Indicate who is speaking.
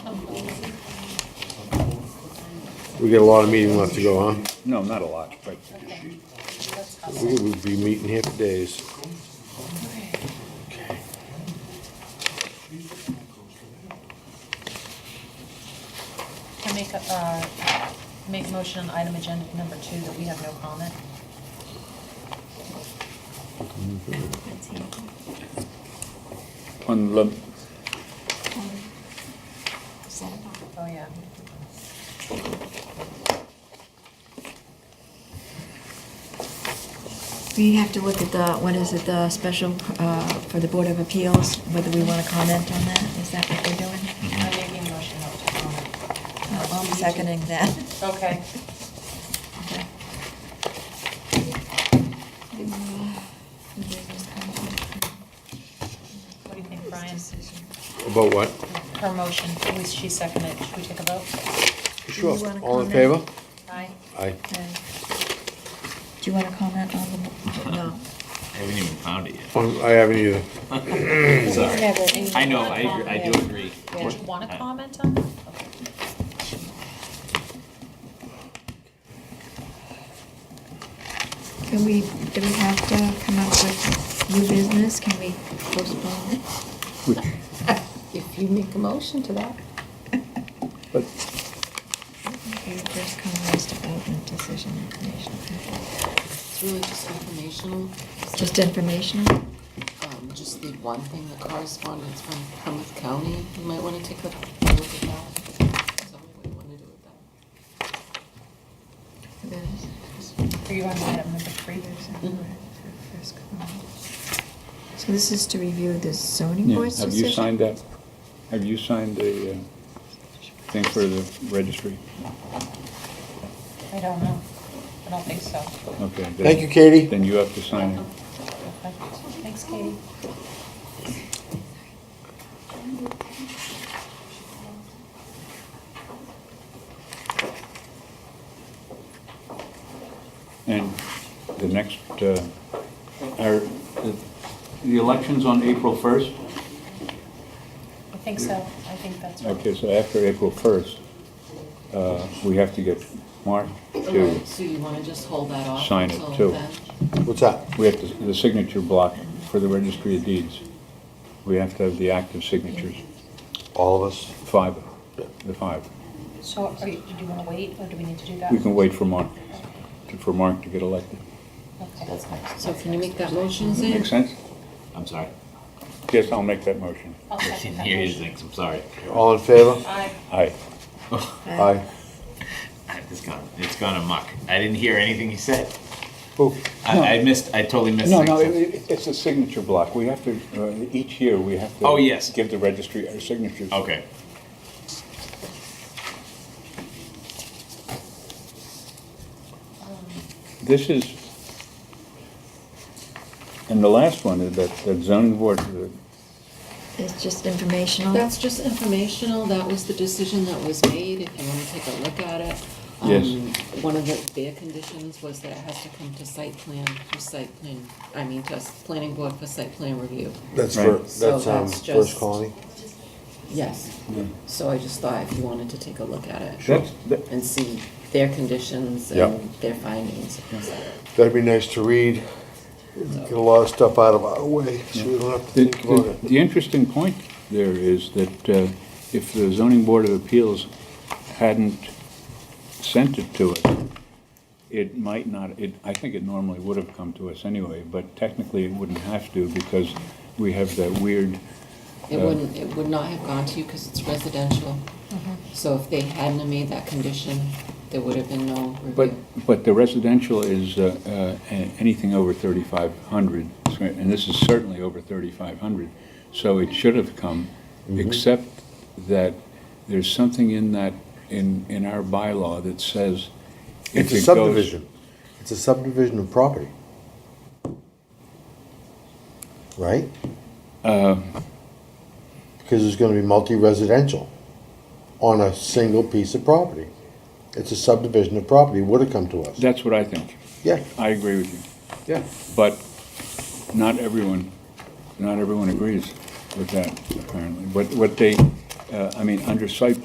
Speaker 1: We got a lot of meeting left to go, huh?
Speaker 2: No, not a lot, but
Speaker 1: We would be meeting here for days.
Speaker 3: Can I make, a- uh, make a motion on item agenda number two that we have no comment?
Speaker 2: on the,
Speaker 3: Oh, yeah.
Speaker 4: We have to look at the, what is it, the special uh, for the Board of Appeals, whether we want to comment on that? Is that what we're doing?
Speaker 1: Mm-hmm.
Speaker 3: I'm making a motion not to comment.
Speaker 4: Uh, well, I'm seconding that.
Speaker 3: Okay.
Speaker 4: Okay.
Speaker 3: What do you think, Brian?
Speaker 1: About what?
Speaker 3: Her motion, who- she seconded it. Should we take a vote?
Speaker 1: Sure,
Speaker 4: you wanna
Speaker 1: all in favor?
Speaker 4: comment?
Speaker 3: Aye.
Speaker 1: Aye.
Speaker 4: Okay. Do you want to comment on the, no?
Speaker 5: I haven't even found it yet.
Speaker 1: Um, I haven't either.
Speaker 5: Sorry. I know, I, agree- I do agree.
Speaker 3: Did you want to comment on that? Okay.
Speaker 4: Can we, do we have to come up with new business? Can we postpone it?
Speaker 6: If you make a motion to that.
Speaker 2: but
Speaker 4: Okay, first come, last development decision information.
Speaker 6: It's really just informational.
Speaker 4: Just informational?
Speaker 6: Um, just the one thing, the correspondence from Plymouth County, you might wanna take a look at that. Tell me what you wanna do with that.
Speaker 3: Are you on item number three?
Speaker 4: So this is to review the zoning
Speaker 2: yeah,
Speaker 4: board's
Speaker 2: have
Speaker 4: decision?
Speaker 2: you signed that? Have you signed the uh, thing for the registry?
Speaker 3: I don't know. I don't think so.
Speaker 2: Okay. then-
Speaker 1: Thank you, Katie.
Speaker 2: Then you have to sign it.
Speaker 3: Okay. Thanks, Katie.
Speaker 2: And the next, uh, are, the- the election's on April 1st?
Speaker 3: I think so. I think that's right.
Speaker 2: Okay, so after April 1st, uh, we have to get Mark to
Speaker 6: Okay, So you wanna just hold that off
Speaker 2: Sign it,
Speaker 6: until
Speaker 2: too.
Speaker 6: then?
Speaker 1: What's that?
Speaker 2: We have to- the signature block for the registry of deeds. We have to have the active signatures,
Speaker 1: All of us?
Speaker 2: five, the five.
Speaker 3: So are you, do you want to wait or do we need to do that?
Speaker 2: We can wait for Mark, to- for Mark to get elected.
Speaker 3: Okay.
Speaker 6: So can you make that motion, Zane?
Speaker 2: Make sense?
Speaker 5: I'm sorry.
Speaker 2: Yes, I'll make that motion.
Speaker 3: I'll
Speaker 5: I
Speaker 3: second
Speaker 5: didn't
Speaker 3: that
Speaker 5: hear his
Speaker 3: motion.
Speaker 5: things, I'm sorry.
Speaker 1: All in favor?
Speaker 3: Aye.
Speaker 2: Aye.
Speaker 1: Aye.
Speaker 5: It's gone, it's gone amok. I didn't hear anything he said.
Speaker 2: Oh,
Speaker 5: I, I missed, I totally missed.
Speaker 2: No, no, it-
Speaker 5: things.
Speaker 2: it- it's a signature block. We have to, uh, each year, we have to.
Speaker 5: Oh, yes.
Speaker 2: Give the registry our signatures.
Speaker 5: Okay.
Speaker 2: This is, and the last one, is that that zoning board, uh,
Speaker 4: It's just informational?
Speaker 6: That's just informational, that was the decision that was made, if you wanna take a look at it.
Speaker 2: Yes.
Speaker 6: Um, One of the, their conditions was that it has to come to site plan, for site plan, I mean, to s- planning board for site plan review.
Speaker 1: That's for,
Speaker 2: Right.
Speaker 6: So
Speaker 1: that's, um,
Speaker 6: that's
Speaker 1: First
Speaker 6: just-
Speaker 1: Colony?
Speaker 6: Yes, so I just thought if you wanted to take a look at it.
Speaker 2: That's- that-
Speaker 6: And see their conditions
Speaker 1: Yeah.
Speaker 6: and their findings.
Speaker 1: That'd be nice to read. Get a lot of stuff out of our way, so we don't have to
Speaker 2: The,
Speaker 1: think about
Speaker 2: the-
Speaker 1: it.
Speaker 2: the interesting point there is that uh, if the zoning board of appeals hadn't sent it to us, it might not, it, I think it normally would have come to us anyway, but technically it wouldn't have to because we have that weird,
Speaker 6: It wouldn't, it would not have gone to you because it's residential. So if they hadn't have made that condition, there would have been no review.
Speaker 2: but, but the residential is uh, uh, a- anything over 3,500, and this is certainly over 3,500, so it should have come,
Speaker 1: Mm-hmm.
Speaker 2: except that there's something in that, in, in our bylaw that says.
Speaker 1: It's
Speaker 2: if
Speaker 1: a
Speaker 2: it goes-
Speaker 1: subdivision. It's a subdivision of property. Right? Um. Because it's gonna be multi-residential on a single piece of property. It's a subdivision of property, would've come to us.
Speaker 2: That's what I think.
Speaker 1: Yeah,
Speaker 2: I agree with you.
Speaker 1: yeah.
Speaker 2: But not everyone, not everyone agrees with that, apparently. But what they, uh, I mean, under site